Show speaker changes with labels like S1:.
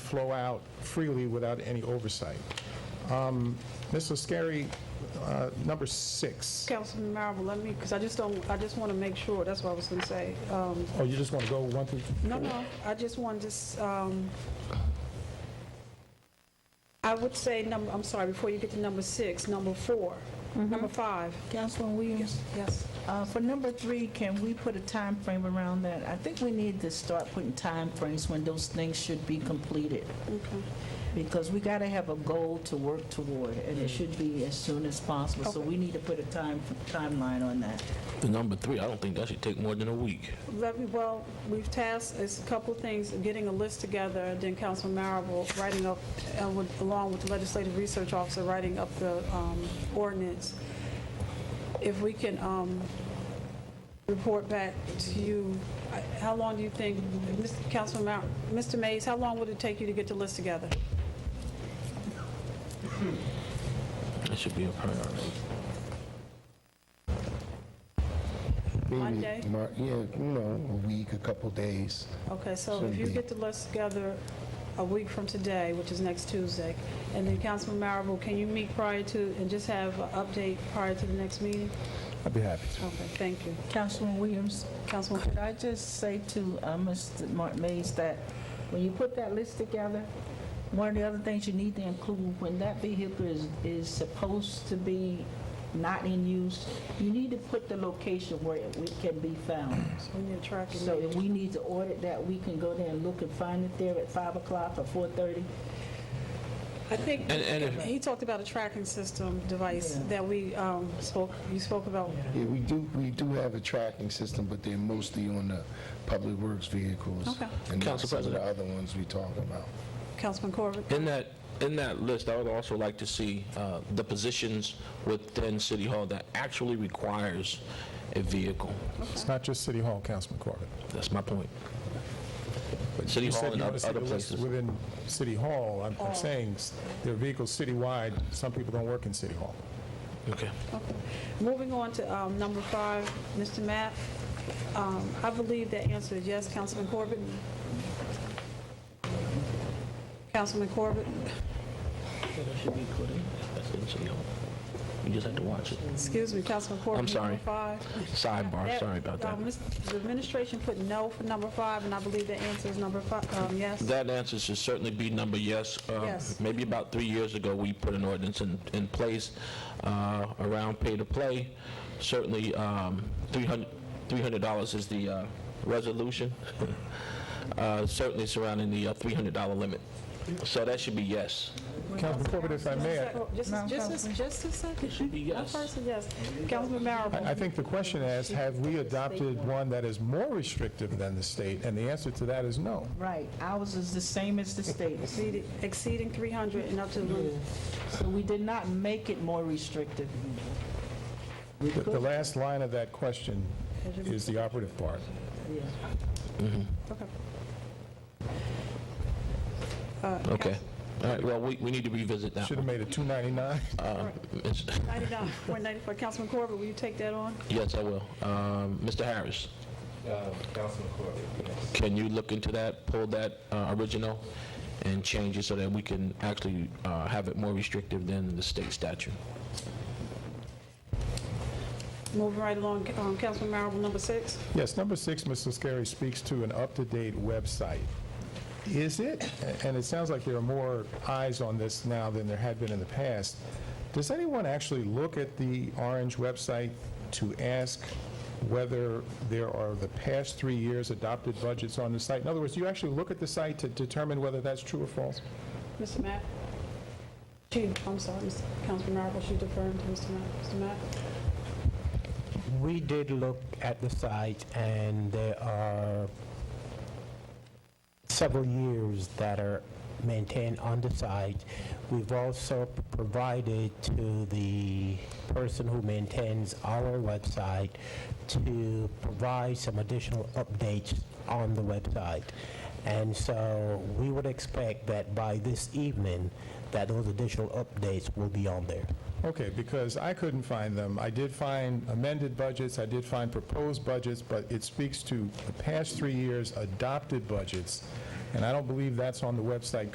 S1: flow out freely without any oversight. Um, Ms. Lascari, uh, number six.
S2: Councilman Marable, let me, because I just don't, I just want to make sure, that's what I was going to say. Um,
S1: Oh, you just want to go one through?
S2: No, no, I just want to, s- um, I would say number, I'm sorry, before you get to number six, number four, number five.
S3: Councilman Williams,
S2: Mm-hmm. Yes.
S3: uh, for number three, can we put a time frame around that? I think we need to start putting time frames when those things should be completed. Because we got to have a goal to work toward, and it should be as soon as possible. So we need to put a time, timeline on that.
S4: The number three, I don't think that should take more than a week.
S2: Let me, well, we've tasked, it's a couple of things, getting a list together, then Councilman Marable writing up, uh, with- along with the legislative research officer, writing up the um, ordinance. If we can um, report back to you, I- how long do you think, Mr. Councilman, Mar- Mr. Mays, how long would it take you to get the list together?
S4: That should be a priority.
S5: Maybe
S2: Monday?
S5: Mar- Yeah, you know, a week, a couple days.
S2: Okay, so if you get the list together a week from today, which is next Tuesday, and then Councilman Marable, can you meet prior to, and just have an update prior to the next meeting?
S1: I'd be happy
S2: Okay, thank you.
S3: Councilman Williams,
S2: Councilman,
S3: could I just say to uh, Mr. Mark Mays that when you put that list together, one of the other things you need to include, when that vehicle is, is supposed to be not in use, you need to put the location where it it can be found.
S2: we need a tracking.
S3: So if we need to audit that, we can go there and look and find it there at 5 o'clock or 4:30.
S2: I think
S4: And- and if-
S2: he talked about a tracking system device
S3: Yeah.
S2: that we um, spoke, you spoke about.
S5: Yeah, we do, we do have a tracking system, but they're mostly on the public works vehicles.
S2: Okay.
S5: And not
S4: Council
S5: some of the
S4: President.
S5: other ones we talked about.
S2: Councilman Corbett?
S4: In that, in that list, I would also like to see uh, the positions within City Hall that actually requires a vehicle.
S1: It's not just City Hall, Councilman Corbett.
S4: That's my point.
S1: But
S4: City
S1: you
S4: Hall
S1: said
S4: and
S1: you
S4: oth-
S1: wanna see
S4: other
S1: the list
S4: places.
S1: Within City Hall, I'm- I'm saying, s- there are vehicles citywide, some people don't work in City Hall.
S4: Okay.
S2: Okay. Moving on to um, number five, Mr. Matt, um, I believe that answer is yes, Councilman Corbett? Councilman Corbett?
S4: That should be put in. That's in City Hall. You just have to watch it.
S2: Excuse me, Councilman Corbett?
S4: I'm sorry.
S2: Number five?
S4: Sidebar, sorry about
S2: Uh,
S4: that.
S2: Ms- The administration put no for number five, and I believe the answer is number five, um, yes.
S4: That answer should certainly be number yes. Uh,
S2: Yes.
S4: Maybe about three years ago, we put an ordinance in, in place uh, around pay-to-play. Certainly, um, 300 $300 is the uh, resolution, Uh, certainly surrounding the uh, $300 limit. So that should be yes.
S1: Councilman Corbett, if I may, I-
S2: Just, a- just, a- just a second.
S4: should be
S2: One
S4: yes.
S2: person, yes. Councilman Marable?
S1: I think the question is, have we adopted one that is more restrictive than the state? And the answer to that is no.
S3: Right, ours is the same as the state's.
S2: Exceeding- Exceeding 300 and up to, the-
S3: So we did not make it more restrictive.
S1: The- The last line of that question is the operative part.
S2: okay.
S4: Okay. All right, well, we, we need to revisit that
S1: Should
S4: one.
S1: have made it 299.
S4: Uh, Ms-
S2: 99, 194. Councilman Corbett, will you take that on?
S4: Yes, I will. Um, Mr. Harris? Can you look into that, pull that uh, original, and change it so that we can actually uh, have it more restrictive than the state statute?
S2: Moving right along, um, Councilman Marable, number six.
S1: Yes, number six, Mr. Scarry speaks to an up-to-date website. Is it, and it sounds like there are more eyes on this now than there had been in the past, does anyone actually look at the Orange website to ask whether there are the past three years adopted budgets on the site? In other words, do you actually look at the site to determine whether that's true or false?
S2: Mr. Matt? She, I'm sorry, Mr. Councilman Marable, she deferring to Mr. Matt. Mr. Matt?
S6: We did look at the site, and there are several years that are maintained on the site. We've also provided to the person who maintains our website to provide some additional updates on the website. And so we would expect that by this evening, that those additional updates will be on there.
S1: Okay, because I couldn't find them. I did find amended budgets, I did find proposed budgets, but it speaks to the past three years' adopted budgets, and I don't believe that's on the website